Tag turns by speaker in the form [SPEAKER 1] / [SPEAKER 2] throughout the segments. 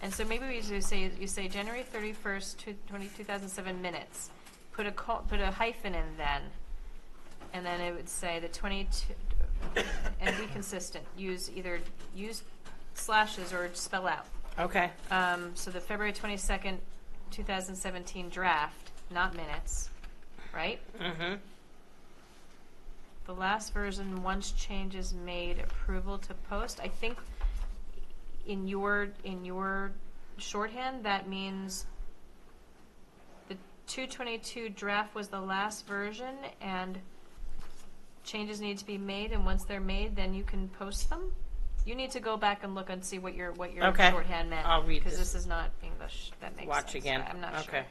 [SPEAKER 1] And so maybe we should say, you say January thirty-first, two, twenty, two thousand seven minutes. Put a col, put a hyphen in then, and then it would say the twenty-two, and be consistent. Use either, use slashes or spell out.
[SPEAKER 2] Okay.
[SPEAKER 1] Um, so the February twenty-second, two thousand seventeen draft, not minutes, right?
[SPEAKER 2] Mm-hmm.
[SPEAKER 1] The last version, once changes made, approval to post, I think in your, in your shorthand, that means the two twenty-two draft was the last version and changes need to be made, and once they're made, then you can post them? You need to go back and look and see what your, what your
[SPEAKER 2] Okay.
[SPEAKER 1] shorthand meant.
[SPEAKER 2] I'll read
[SPEAKER 1] Because
[SPEAKER 2] this.
[SPEAKER 1] this is not English, that makes sense.
[SPEAKER 2] Watch again.
[SPEAKER 1] I'm not sure.
[SPEAKER 2] Okay.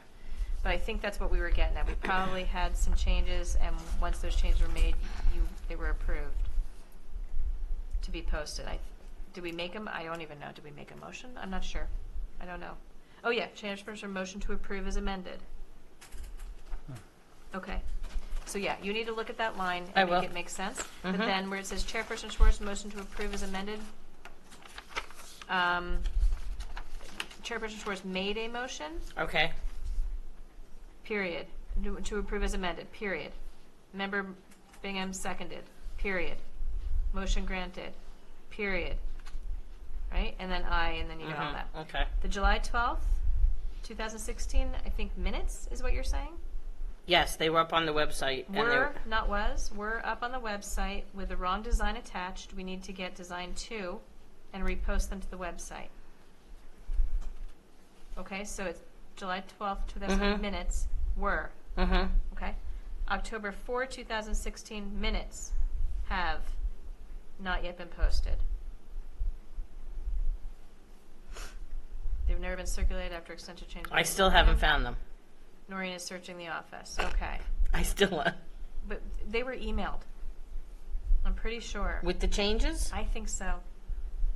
[SPEAKER 1] But I think that's what we were getting at. We probably had some changes, and once those changes were made, you, they were approved to be posted. I, did we make them? I don't even know. Did we make a motion? I'm not sure. I don't know. Oh, yeah, transfers or motion to approve is amended. Okay. So, yeah, you need to look at that line
[SPEAKER 2] I
[SPEAKER 1] and
[SPEAKER 2] will.
[SPEAKER 1] make it make sense. But
[SPEAKER 2] Mhm.
[SPEAKER 1] then where it says Chairperson Schwartz, motion to approve is amended, um, Chairperson Schwartz made a motion.
[SPEAKER 2] Okay.
[SPEAKER 1] Period. To- To approve as amended, period. Member Bingham seconded, period. Motion granted, period. Right? And then I, and then you got all
[SPEAKER 2] Mhm.
[SPEAKER 1] that.
[SPEAKER 2] Okay.
[SPEAKER 1] The July 12th, 2016, I think minutes is what you're saying?
[SPEAKER 2] Yes, they were up on the website. and they
[SPEAKER 1] Were, not was, were up on the website with the wrong design attached. We need to get design two and repost them to the website. Okay, so it's July 12th, 2000
[SPEAKER 2] Mhm.
[SPEAKER 1] minutes were.
[SPEAKER 2] Mhm.
[SPEAKER 1] Okay. October 4, 2016 minutes have not yet been posted. They've never been circulated after extensive change.
[SPEAKER 2] I still haven't found them.
[SPEAKER 1] Noreen is searching the office. Okay.
[SPEAKER 2] I still
[SPEAKER 1] But they were emailed. I'm pretty sure.
[SPEAKER 2] with the changes
[SPEAKER 1] I think so.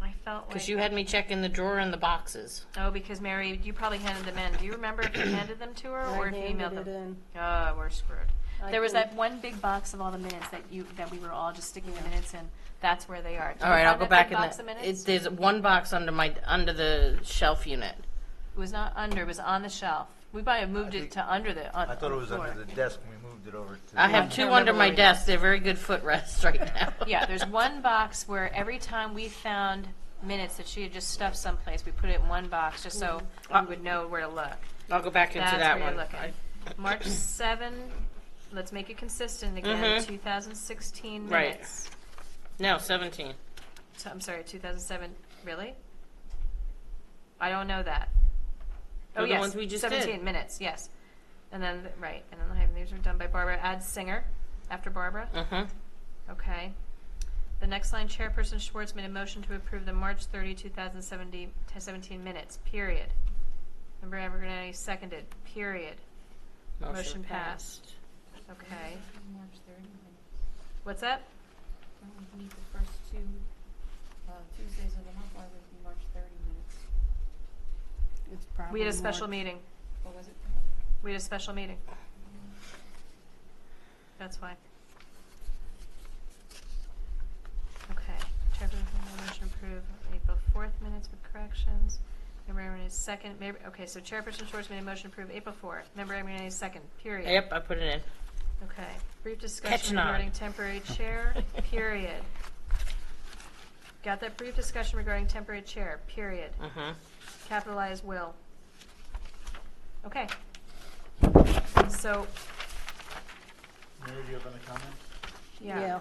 [SPEAKER 1] I felt like.
[SPEAKER 2] because you had me checking the drawer and the boxes.
[SPEAKER 1] Oh, because Mary, you probably handed them in. Do you remember if you handed them to her or if you emailed them? Oh, we're screwed.
[SPEAKER 3] I
[SPEAKER 1] There was
[SPEAKER 3] think-
[SPEAKER 1] that one big box of all the minutes that you, that we were all just sticking the minutes in. That's where they are. Did
[SPEAKER 2] All
[SPEAKER 1] you
[SPEAKER 2] right, I'll
[SPEAKER 1] find
[SPEAKER 2] go
[SPEAKER 1] that
[SPEAKER 2] back
[SPEAKER 1] big
[SPEAKER 2] and
[SPEAKER 1] box of
[SPEAKER 2] the-
[SPEAKER 1] minutes?
[SPEAKER 2] it, there's one box under my under the shelf unit.
[SPEAKER 1] It was not under, it was on the shelf. We probably moved
[SPEAKER 4] I
[SPEAKER 1] it
[SPEAKER 4] think-
[SPEAKER 1] to under the, on
[SPEAKER 4] I thought it was
[SPEAKER 1] floor.
[SPEAKER 4] under the desk, and we moved it over to.
[SPEAKER 2] I
[SPEAKER 4] the-
[SPEAKER 2] have
[SPEAKER 1] can't
[SPEAKER 2] two
[SPEAKER 1] remember
[SPEAKER 2] under my
[SPEAKER 1] where it
[SPEAKER 2] desk. They're very good footrests right now.
[SPEAKER 1] Yeah, there's one box where every time we found minutes that she had just stuffed someplace, we put it in one box just so we would know where to look.
[SPEAKER 2] I'll go back into
[SPEAKER 1] That's
[SPEAKER 2] that
[SPEAKER 1] where
[SPEAKER 2] one.
[SPEAKER 1] you're looking. March 7, let's make it consistent again,
[SPEAKER 2] Mhm.
[SPEAKER 1] 2016
[SPEAKER 2] Right.
[SPEAKER 1] minutes.
[SPEAKER 2] No, 17.
[SPEAKER 1] So, I'm sorry, 2007, really? I don't know that. Oh,
[SPEAKER 2] They're the
[SPEAKER 1] yes.
[SPEAKER 2] ones we just
[SPEAKER 1] 17
[SPEAKER 2] did.
[SPEAKER 1] minutes, yes. And then, right, and then the hyphen, these are done by Barbara. Add Singer after Barbara.
[SPEAKER 2] Mhm.
[SPEAKER 1] Okay. The next line, Chairperson Schwartz made a motion to approve the March 30, 2017 17 minutes, period. Member Abernathy seconded, period. Motion passed. Okay.
[SPEAKER 5] March 30 minutes.
[SPEAKER 1] What's that?
[SPEAKER 5] When we meet the first two uh, Tuesdays of the month, why would it be March 30 minutes?
[SPEAKER 3] It's probably
[SPEAKER 1] We had a
[SPEAKER 3] more-
[SPEAKER 1] special meeting.
[SPEAKER 5] What was it?
[SPEAKER 1] We had a special meeting. That's why. Okay, Trevor, motion approved, April fourth minutes with corrections. Member Abernathy's second, maybe, okay, so Chairperson Schwartz made a motion to approve April fourth, member Abernathy's second, period.
[SPEAKER 2] Yep, I put it in.
[SPEAKER 1] Okay, brief
[SPEAKER 2] Catching
[SPEAKER 1] discussion
[SPEAKER 2] on.
[SPEAKER 1] regarding temporary chair, period. Got that brief discussion regarding temporary chair, period.
[SPEAKER 2] Mhm.
[SPEAKER 1] Capitalize will. Okay. So,
[SPEAKER 6] Mary, do you have any comments?
[SPEAKER 1] yeah,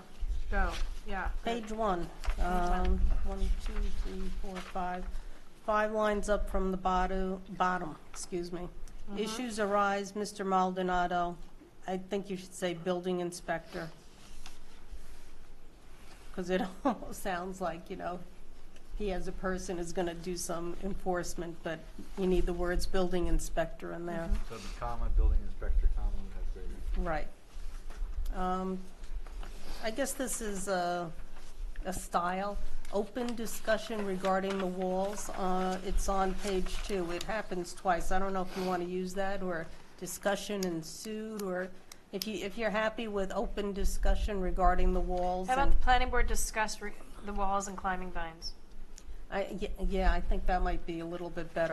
[SPEAKER 1] go, yeah.
[SPEAKER 3] Page one, um, one, two, three, four, five, five lines up from the bottom, bottom, excuse me.
[SPEAKER 1] Mm-hmm.
[SPEAKER 3] Issues arise, Mr. Maldonado, I think you should say building inspector. Because it almost sounds like, you know, he as a person is gonna do some enforcement, but you need the words building inspector in
[SPEAKER 1] Mm-hmm.
[SPEAKER 3] there.
[SPEAKER 4] So the comma, building inspector, comma, would have to be-
[SPEAKER 3] Right. Um, I guess this is a, a style, open discussion regarding the walls. Uh, It's on page two. It happens twice. I don't know if you want to use that, or discussion ensued, or if you, if you're happy with open discussion regarding the walls.
[SPEAKER 1] How about
[SPEAKER 3] and-
[SPEAKER 1] the planning board discussed re- the walls and climbing vines?
[SPEAKER 3] I- ye- Yeah, I think that might be a little bit better.